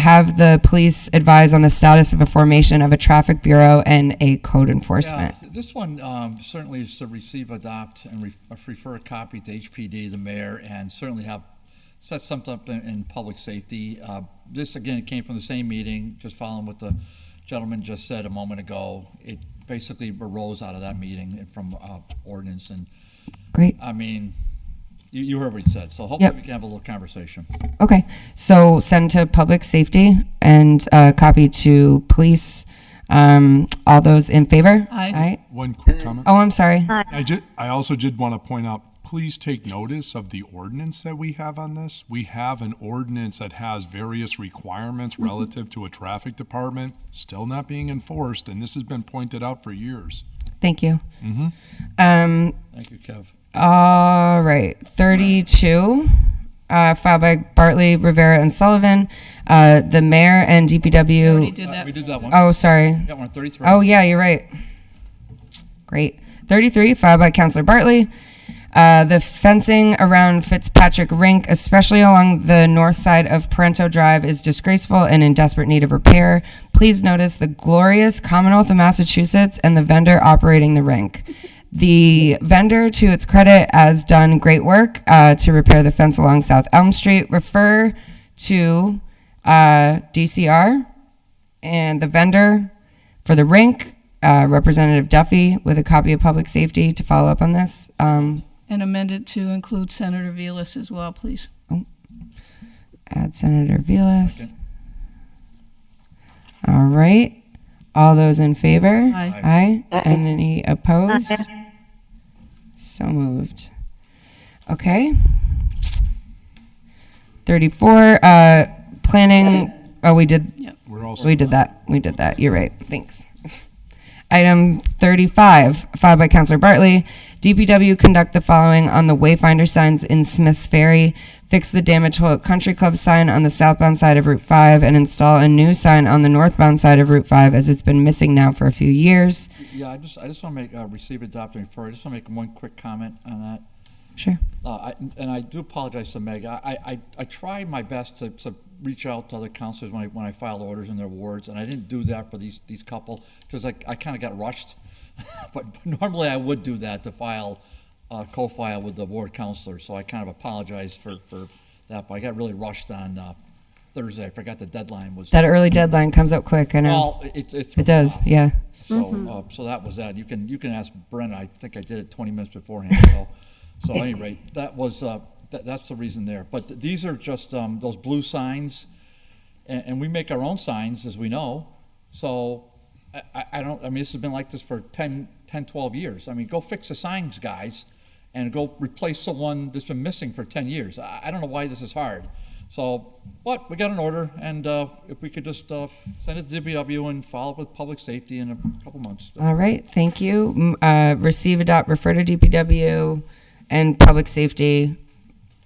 have the police advise on the status of a formation of a traffic bureau and a code Yeah, enforcement. th- This one um, certainly is to receive, adopt, and re- uh, refer a copy to HPD, the mayor, and certainly have, set something up in, in public safety. Uh, This, again, came from the same meeting, just following what the gentleman just said a moment ago. It basically arose out of that meeting and from uh, ordinance, and, Great, I mean, you, you heard what he said, so hopefully Yep. we can have a little conversation. okay. So send to public safety and uh, copy to police. Um, All those in favor? Aye. One quick comment. Oh, I'm sorry. I ju- I also did want to point out, please take notice of the ordinance that we have on this. We have an ordinance that has various requirements relative to a traffic department, still not being enforced, and this has been pointed out for years. Thank you. Um, Thank you, Kev. All right, 32, uh, filed by Bartley, Rivera, and Sullivan. Uh, the mayor and Already DPW. did Uh, that. We did that one. Oh, sorry. Got one, 33. Oh, yeah, you're right. Great. 33, filed by Councilor Bartley. Uh, the fencing around Fitzpatrick Rink, especially along the north side of Parento Drive, is disgraceful and in desperate need of repair. Please notice the glorious Commonwealth of Massachusetts and the vendor operating the rink. The vendor, to its credit, has done great work uh, to repair the fence along South Elm Street. Refer to uh, DCR and the vendor for the rink, uh, Representative Duffy, with a copy of Public Safety to follow up on this. Um, And amend it to include Senator Vilas as well, please. Add Senator Vilas. All right. All those in favor? Aye. Aye. And any opposed? So moved. Okay. 34, uh, planning, oh, we did, We're also, we did that. We did that. You're right. Thanks. Item 35, filed by Councilor Bartley. DPW conduct the following on the Wayfinder signs in Smith's Ferry. Fix the damaged Hoyok Country Club sign on the southbound side of Route 5 and install a new sign on the northbound side of Route 5 as it's been missing now for a few years. Yeah, I just, I just want to make, uh, receive, adopt, and refer. I just want to make one quick comment on that. Sure. Uh, I- And I do apologize to Meg. I- I, I, I try my best to, to reach out to other counselors when I, when I file orders in their wards, and I didn't do that for these, these couple, because I, I kind of got rushed. But normally I would do that to file, uh, co-file with the ward counselor, so I kind of apologize for, for that. But I got really rushed on uh, Thursday. I forgot the deadline was. That early deadline comes up quick, I know. Well, it, it. It does, yeah. So, uh, so that was that. You can, you can ask Brent. I think I did it 20 minutes beforehand, so, so at any rate, that was, uh, that, that's the reason there. But th- these are just, um, those blue signs, and, and we make our own signs, as we know. So I, I, I don't, I mean, this has been like this for 10, 10, 12 years. I mean, go fix the signs, guys, and go replace the one that's been missing for 10 years. I, I don't know why this is hard. So, but we got an order, and uh, if we could just uh, send it to DPW and follow up with public safety in a couple months. All right, thank you. M- Uh, receive, adopt, refer to DPW and public safety.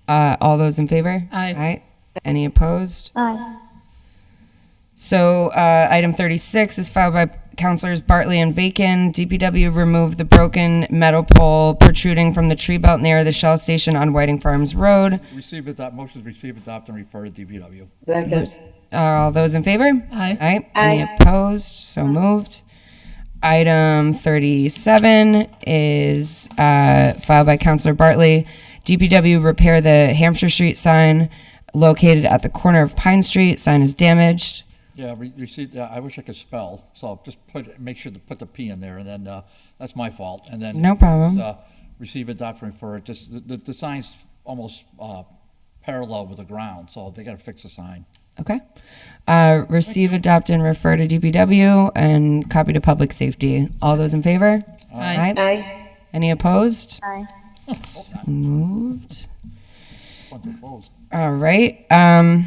Uh, all those in favor? Aye. Aye. Any opposed? Aye. So, uh, item thirty-six is filed by Councilors Bartley and Bacon. DPW remove the broken metal pole protruding from the tree belt near the Shell Station on Whiting Farms Road. Receive adopt, motion to receive, adopt, and refer to DPW. Second. Are all those in favor? Aye. Aye. Any opposed? So moved. Item 37 is uh, filed by Counselor Bartley. DPW repair the Hampshire Street sign located at the corner of Pine Street. Sign is damaged. Yeah, re- receive, yeah, I wish I could spell, so just put, make sure to put the P in there, and then, uh, that's my fault, and then. No problem. Uh, Receive, adopt, and refer, just, the, the, the sign's almost, uh, parallel with the ground, so they gotta fix the sign. Okay. Uh, receive, adopt, and refer to DPW and copy to public safety. All those in favor? Aye. Aye. Any opposed? Aye. Moved. Front to close. All right. Um,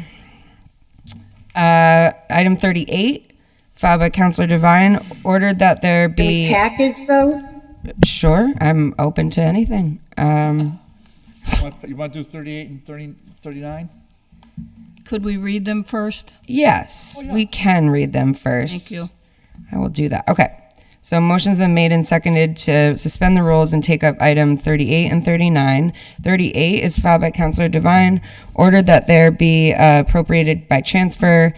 uh, item 38, filed by Counselor Devine, ordered that there be. Package those? Sure, I'm open to anything. Um, You wanna- You wanna do thirty-eight and thirty, thirty-nine? Could we read them first? yes, we can read them first. Oh, Thank you. I will do that. Okay. So motion's been made and seconded to suspend the rules and take up item 38 and 39. 38 is filed by Counselor Devine, ordered that there be uh, appropriated by transfer